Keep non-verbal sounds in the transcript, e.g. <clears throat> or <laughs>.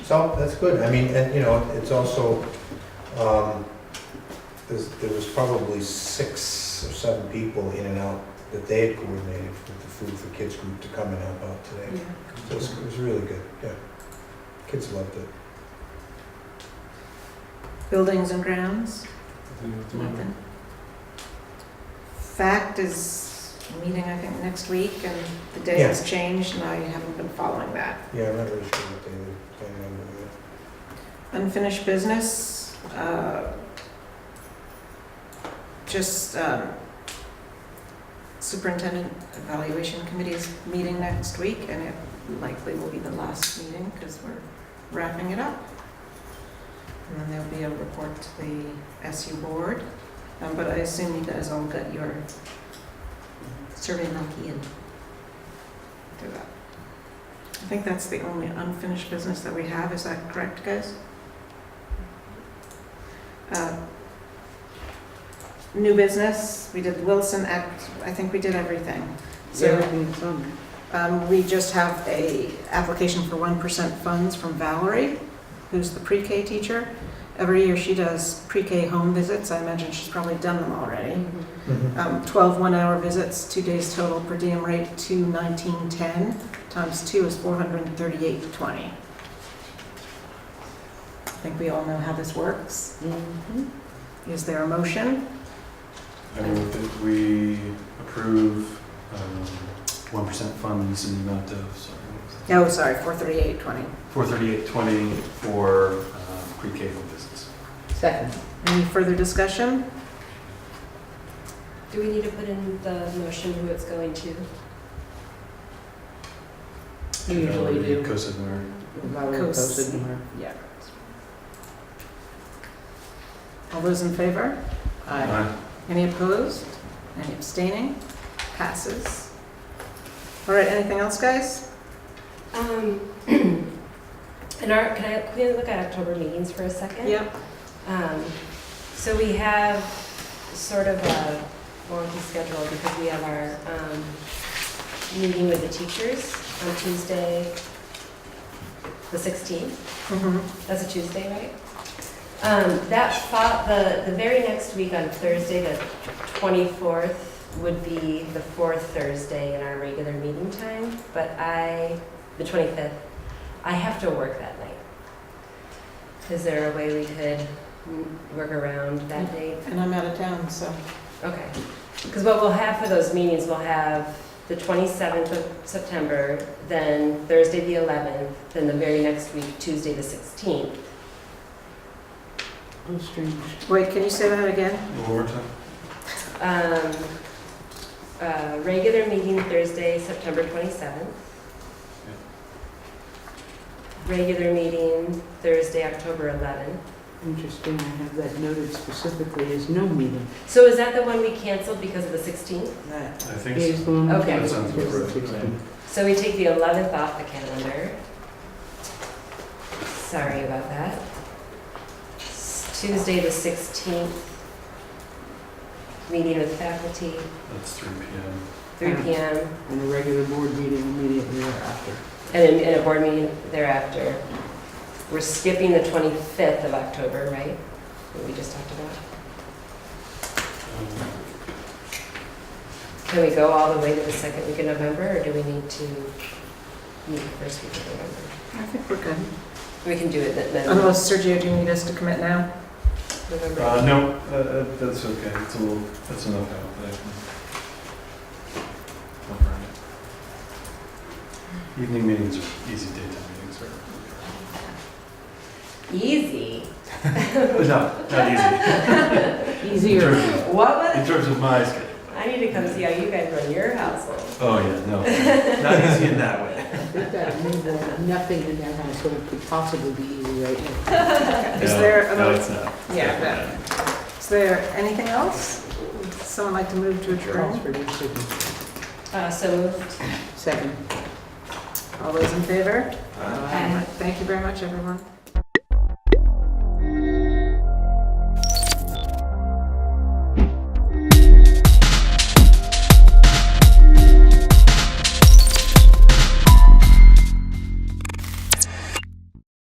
So that's good. I mean, and you know, it's also, um, there's, there was probably six or seven people in and out that they had coordinated with the Food for Kids group to come and help out today. So it was, it was really good, yeah. Kids loved it. Buildings and grounds, Mm-hmm. Nothing. nothing. Fact is meeting, I think, next week, and the day has changed, and I haven't been following that. Yeah, I'm not really sure what they were planning on doing. Unfinished business, uh, just um, superintendent evaluation committee is meeting next week, and it likely will be the last meeting, because we're wrapping it up. And then there'll be a report to the SU board, Um, but I assume you guys all got your survey monkey and do that. I think that's the only unfinished business that we have, is that correct, guys? Uh, New business, we did Wilson Act, I think we did everything. So Everything's on there. um, we just have a application for one percent funds from Valerie, who's the pre-K teacher. Every year she does pre-K home visits, I imagine she's probably done them already. Um, twelve one-hour visits, two days total, per diem rate two nineteen ten, times two is four hundred and thirty-eight twenty. I think we all know how this works. Mhm. Is there a motion? I move that we approve um, one percent funds in the amount of, sorry, No, Oh, sorry, four thirty-eight twenty. four thirty-eight twenty for um, pre-K home visits. Second. Any further discussion? Do we need to put in the motion who it's going to? We usually do. COSID or Valerie Coast. posted in her. Yeah. All those in favor? Any opposed? Any abstaining? Passes. All right, anything else, guys? Um, <clears throat> in our, can I, can we look at October meetings for a second? Yep. Um, so we have sort of a wonky schedule because we have our, um, meeting with the teachers on Tuesday, the sixteenth. Mhm. That's a Tuesday, right? Um, that fo- the, the very next week on Thursday, the twenty-fourth, would be the fourth Thursday in our regular meeting time, but I, the twenty-fifth, I have to work that night. Is there a way we could mm, work around that date? And I'm out of town, so. Okay, because what we'll have for those meetings, we'll have the 27th of September, then Thursday the 11th, then the very next week, Tuesday the 16th. Oh, strange. Wait, can you say that again? One more time? Um, uh, Regular meeting Thursday, September 27th. Regular meeting Thursday, October 11th. Interesting, I have that noted specifically as no meeting. So is that the one we canceled because of the 16th? That I think so. is the Mm-hmm. one. Okay. That sounds about right, yeah. So we take the 11th off the calendar. Sorry about that. S- Tuesday, the 16th, meeting with faculty, That's three P M. three Mm. PM, And a regular board meeting immediately thereafter. and then- and a board meeting thereafter. We're skipping the 25th of October, right? That we just talked about. Can we go all the way to the second week of November, or do we need to meet the first week of November? I think we're good. We can do it then- then. Unless, Sergio, do you need us to commit now? November. Uh, no, uh, uh, that's okay, it's a little, that's enough out there. Don't worry. Evening meetings are easy, daytime meetings are, <laughs> Easy. but no, not easy. Easier. What was? In terms of my schedule. I need to come see how you guys run your household. Oh, yeah, no. Not easy in that way. We've got a new one. nothing in that household could possibly be easy right now. Is No, there a- No, it's not. Yeah, that- Is there anything else? Would Someone like to move to Calls adjourn? for decision. Uh, so moved. Second. All those in favor? Uh, All right, Thank you very much, everyone.